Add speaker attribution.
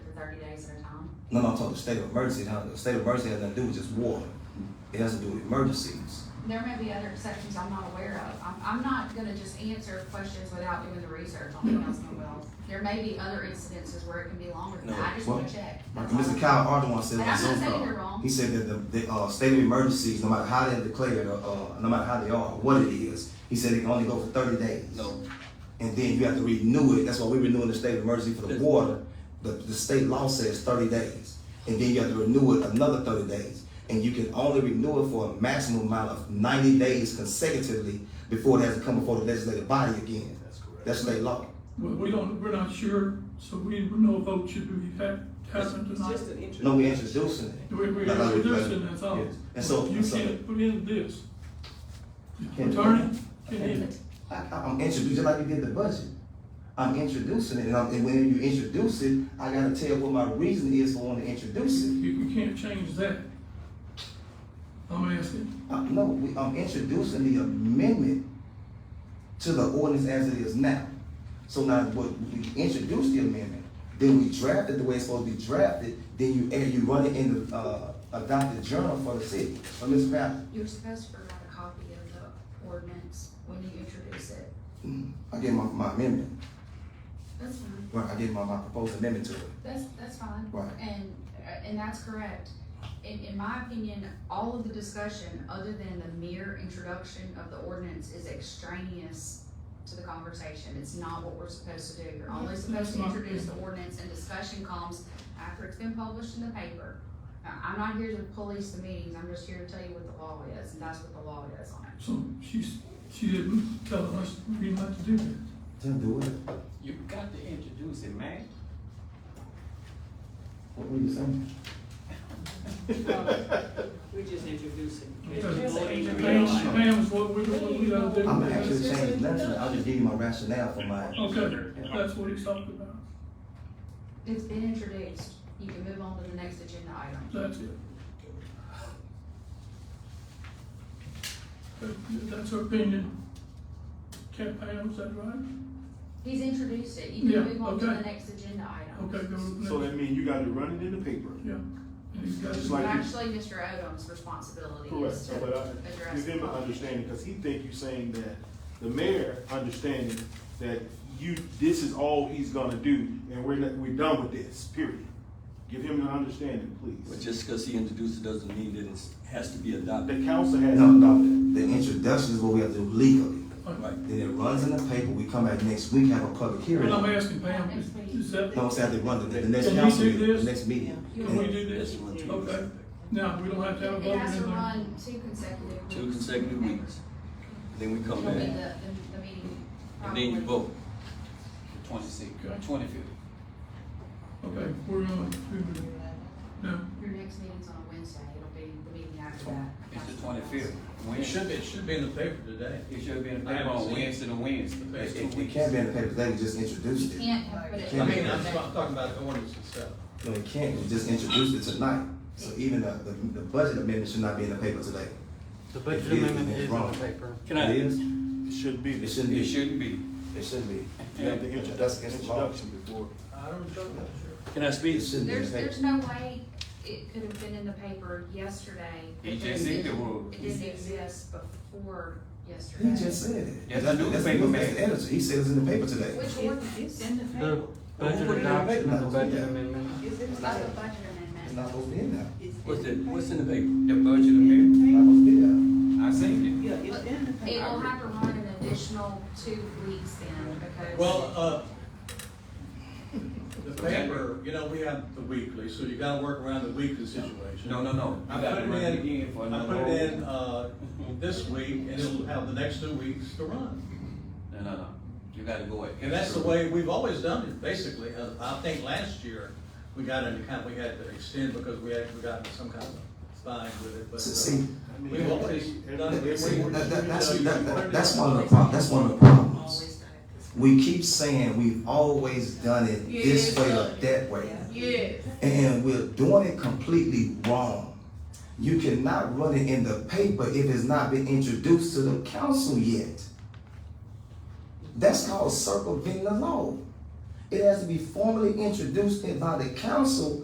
Speaker 1: thirty days at a time?
Speaker 2: No, no, I'm talking state of emergency. Now, the state of emergency has nothing to do with just war. It has to do with emergencies.
Speaker 1: There may be other exceptions I'm not aware of. I'm, I'm not gonna just answer questions without doing the research on Councilman Wells. There may be other incidences where it can be longer than that. I just wanna
Speaker 2: Well,
Speaker 1: check.
Speaker 2: And
Speaker 1: That's all.
Speaker 2: Mr. Kyle Ardoin said
Speaker 1: But
Speaker 2: on
Speaker 1: I'm
Speaker 2: Zoom
Speaker 1: not saying you're
Speaker 2: call,
Speaker 1: wrong.
Speaker 2: he said that the, the, uh, state of emergencies, no matter how they're declared, uh, uh, no matter how they are, what it is, he said it can only go for thirty days.
Speaker 3: No,
Speaker 2: And then you have to renew it, that's why we renewing the state of emergency for the
Speaker 3: Yes.
Speaker 2: water, the, the state law says thirty days. And then you have to renew it another thirty days, and you can only renew it for a maximum amount of ninety days consecutively before it has to come before the legislative body again. That's correct. That's state law.
Speaker 4: Well, we don't, we're not sure, so we, no vote should be had, happened
Speaker 5: It's
Speaker 4: tonight.
Speaker 5: just an intro.
Speaker 2: No, we introducing it.
Speaker 4: We, we're
Speaker 2: Like I was-
Speaker 4: introducing, that's all.
Speaker 2: Yes. And so-
Speaker 4: You
Speaker 2: and so-
Speaker 4: can't put in this.
Speaker 2: Can't-
Speaker 4: Attorney, can you?
Speaker 2: I, I- I'm introducing, just like you did the budget. I'm introducing it, and, I'm, and when you introduce it, I gotta tell what my reason is for wanting to introduce it.
Speaker 4: You, we can't change that. I'm asking,
Speaker 2: Uh, no, we, I'm introducing the amendment to the ordinance as it is now. So now, what, we introduced the amendment, then we drafted the way it's supposed to be drafted, then you, and you run it in the, uh, adopted journal for the city, for Ms. Fallon.
Speaker 1: You're supposed to provide a copy of the ordinance when you introduce it.
Speaker 2: I gave my, my amendment,
Speaker 1: That's fine.
Speaker 2: well, I gave my, my proposed amendment to it.
Speaker 1: That's, that's fine.
Speaker 2: Right.
Speaker 1: And, uh, and that's correct. In, in my opinion, all of the discussion, other than the mere introduction of the ordinance, is extraneous to the conversation. It's not what we're supposed to do. You're only
Speaker 4: That's-
Speaker 1: supposed to
Speaker 4: that's my
Speaker 1: introduce the ordinance and discussion comes after it's been published in the paper. I- I'm not here to police the meetings. I'm just here to tell you what the law is, and that's what the law is on it.
Speaker 4: so she's, she didn't tell us we not to do that.
Speaker 2: Then do it,
Speaker 3: you've got to introduce it, man.
Speaker 2: what were you saying?
Speaker 5: We're just introducing.
Speaker 4: Because
Speaker 5: Introducing.
Speaker 4: Pam, Pam's what we, what we gotta do.
Speaker 2: I'm actually changing nothing, I'll just give you my rationale for my.
Speaker 4: Okay, that's what he's talking about,
Speaker 1: It's been introduced. You can move on to the next agenda item.
Speaker 4: that's it. That- That's her opinion. Cat Pam, is that right?
Speaker 1: He's introduced it. You can
Speaker 4: Yeah,
Speaker 1: move on to the
Speaker 4: okay.
Speaker 1: next agenda item.
Speaker 4: Okay, go with
Speaker 6: So
Speaker 4: that.
Speaker 6: that means you gotta run it in the paper.
Speaker 4: Yeah. And he's got
Speaker 6: Just
Speaker 4: his-
Speaker 6: like-
Speaker 1: But actually, Mr. Odom's responsibility
Speaker 6: Correct,
Speaker 1: is
Speaker 6: so
Speaker 1: to
Speaker 6: but I,
Speaker 1: address
Speaker 6: give
Speaker 1: the
Speaker 6: him an
Speaker 1: public.
Speaker 6: understanding, cause he think you saying that, the mayor understanding that you, this is all he's gonna do, and we're, not- we're done with this, period. Give him an understanding,
Speaker 3: But
Speaker 6: please.
Speaker 3: just because he introduced it doesn't mean that it has to be adopted.
Speaker 6: The council has.
Speaker 2: No, no, the introduction is what we have to do legally.
Speaker 3: Right.
Speaker 2: Then it runs in the paper, we come back next week, have a public hearing.
Speaker 4: Well, I'm
Speaker 2: No,
Speaker 4: asking Pam, is- is that,
Speaker 2: I'm saying they run the, the next
Speaker 4: Can we
Speaker 2: council,
Speaker 4: do
Speaker 2: meeting,
Speaker 4: this?
Speaker 2: the next meeting.
Speaker 4: can we
Speaker 2: And
Speaker 4: do this? Okay, now, we don't have to have a vote
Speaker 1: It
Speaker 4: in
Speaker 1: has to
Speaker 4: there.
Speaker 1: run two consecutive weeks.
Speaker 3: Two consecutive weeks, then we come
Speaker 1: It'll be the,
Speaker 3: back,
Speaker 1: the, the meeting.
Speaker 3: and then you
Speaker 1: probably.
Speaker 3: vote. Twenty-six, uh,
Speaker 4: Okay.
Speaker 3: twenty-fifth.
Speaker 4: Okay, we're gonna, no,
Speaker 1: Your next meeting's on a Wednesday. It'll be the meeting after that.
Speaker 3: It's the twenty-fifth.
Speaker 7: It should be, it should be in the paper today.
Speaker 3: It should be in the
Speaker 7: I
Speaker 3: paper
Speaker 7: haven't
Speaker 3: on
Speaker 7: seen it.
Speaker 3: Wednesday and Wednesday, that's
Speaker 2: It,
Speaker 3: two
Speaker 2: it- it
Speaker 3: weeks.
Speaker 2: can't be in the paper, they just introduced
Speaker 1: You
Speaker 2: it.
Speaker 1: can't have- but it.
Speaker 7: I mean, I'm talk- talking about the ordinance itself.
Speaker 2: No, it can't, we just introduced it tonight. So even the, the, the budget amendment should not be in the paper today.
Speaker 8: The
Speaker 2: It
Speaker 8: budget
Speaker 2: is,
Speaker 8: amendment
Speaker 2: and it's
Speaker 8: is on
Speaker 2: wrong.
Speaker 8: the paper.
Speaker 3: Can
Speaker 2: It
Speaker 3: I,
Speaker 2: is,
Speaker 6: It should be.
Speaker 2: it
Speaker 6: You
Speaker 2: shouldn't
Speaker 3: it
Speaker 2: be,
Speaker 3: shouldn't be.
Speaker 2: it shouldn't be.
Speaker 6: have the intro- that's the
Speaker 2: It's wrong.
Speaker 6: introduction before.
Speaker 7: I don't know.
Speaker 3: Can I
Speaker 2: It
Speaker 3: speak?
Speaker 2: shouldn't be in
Speaker 1: There's,
Speaker 2: the paper.
Speaker 1: there's no way it could have been in the paper yesterday.
Speaker 3: He
Speaker 1: didn't-
Speaker 3: just said the word.
Speaker 1: It didn't exist before yesterday.
Speaker 2: He just said it.
Speaker 3: Yes,
Speaker 2: That's-
Speaker 3: the
Speaker 2: that's-
Speaker 3: newspaper
Speaker 2: That's the
Speaker 3: man.
Speaker 2: editor, he said it's in the paper today.
Speaker 1: Which ordinance?
Speaker 5: in the
Speaker 8: The budget
Speaker 2: Well, we didn't make
Speaker 8: adoption of the
Speaker 2: nothing.
Speaker 8: budget
Speaker 2: Yeah.
Speaker 8: amendment.
Speaker 5: Is it?
Speaker 1: It's not the budget amendment.
Speaker 2: It's not supposed to be in there,
Speaker 3: What's the, what's in the paper? The budget amendment?
Speaker 2: It's not supposed to be there.
Speaker 3: I seen
Speaker 5: Yeah, it's in the
Speaker 1: It
Speaker 5: paper.
Speaker 1: will have to run an additional two weeks then, because.
Speaker 7: Well, uh, the paper, you know, we have the weekly, so you gotta work around the weekly
Speaker 3: it.
Speaker 7: situation.
Speaker 3: No, no, no.
Speaker 7: I
Speaker 3: You gotta
Speaker 7: put
Speaker 3: run
Speaker 7: it
Speaker 3: again
Speaker 7: in,
Speaker 3: for
Speaker 7: I
Speaker 3: another
Speaker 7: put
Speaker 3: whole-
Speaker 7: it in, uh, this week, and it'll have the next two weeks to run.
Speaker 3: No, no, no. You gotta go ahead.
Speaker 7: And that's the way we've always done it, basically. Uh, I think last year, we got into kind of, we had to extend because we had, we got into some kind of fine with it, but. uh,
Speaker 2: See-
Speaker 7: We've always done it.
Speaker 2: See,
Speaker 7: We- we-
Speaker 2: that- that- that's,
Speaker 7: you know,
Speaker 2: that-
Speaker 7: you
Speaker 2: that-
Speaker 7: put it
Speaker 2: that's
Speaker 7: in.
Speaker 2: one of the prob, that's one of the problems. We keep saying we've always done it this way or that way.
Speaker 1: Yes.
Speaker 2: And we're doing it completely wrong. You cannot run it in the paper if it's not been introduced to the council yet. That's called circumventing the law. It has to be formally introduced by the council